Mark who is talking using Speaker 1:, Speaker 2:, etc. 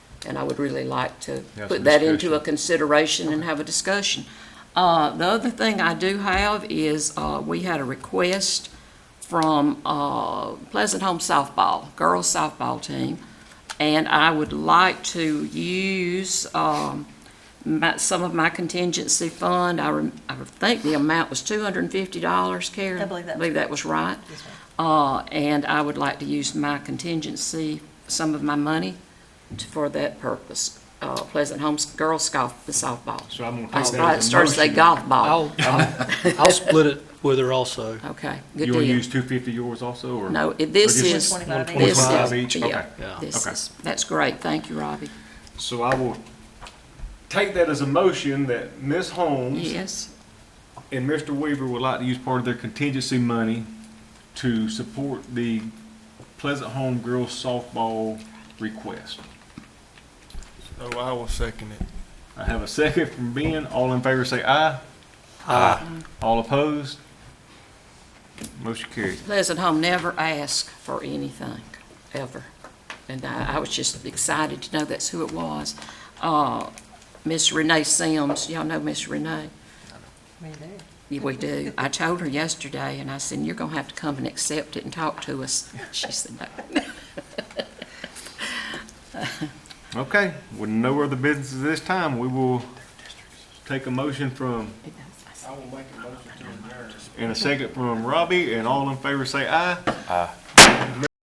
Speaker 1: And I would really like to
Speaker 2: Have some
Speaker 1: put that into
Speaker 2: discussion.
Speaker 1: a consideration and have a discussion. Uh, The other thing I do have is, uh, we had a request from uh, Pleasant Home softball, girls softball team, and I would like to use um, my- some of my contingency fund. I rem- I think the amount was $250, Karen?
Speaker 3: I believe that's
Speaker 1: that was right. Uh, And I would like to use my contingency, some of my money, to- for that purpose. Uh, Pleasant Homes girls golf, the softball.
Speaker 2: So I'm
Speaker 1: I
Speaker 2: gonna take that
Speaker 1: started to say
Speaker 2: as a motion.
Speaker 1: golf ball.
Speaker 4: I'll, I'll split it with her also.
Speaker 1: Okay, good
Speaker 2: You wanna
Speaker 1: deal.
Speaker 2: use two fifty yours also, or?
Speaker 1: No, it-
Speaker 2: or
Speaker 1: this
Speaker 2: just
Speaker 1: is,
Speaker 3: One twenty-five
Speaker 1: this is,
Speaker 2: 125 each? Okay.
Speaker 1: yeah,
Speaker 4: Yeah.
Speaker 1: this
Speaker 2: Okay.
Speaker 1: is, that's great, thank you, Robbie.
Speaker 2: So I will take that as a motion that Ms. Holmes
Speaker 1: Yes,
Speaker 2: and Mr. Weaver would like to use part of their contingency money to support the Pleasant Home Girls Softball request.
Speaker 5: So I will second it.
Speaker 2: I have a second from Ben. All in favor say aye.
Speaker 4: Aye.
Speaker 2: All opposed? Motion carried.
Speaker 1: Pleasant Home never asked for anything, ever. And I, I was just excited to know that's who it was. Uh, Miss Renee Sims, y'all know Miss Renee?
Speaker 3: Me there.
Speaker 1: Yeah, we do. I told her yesterday, and I said, you're gonna have to come and accept it and talk to us. She said, no.
Speaker 2: Okay, with no other business at this time, we will take a motion from, and a second from Robbie, and all in favor say aye. Aye.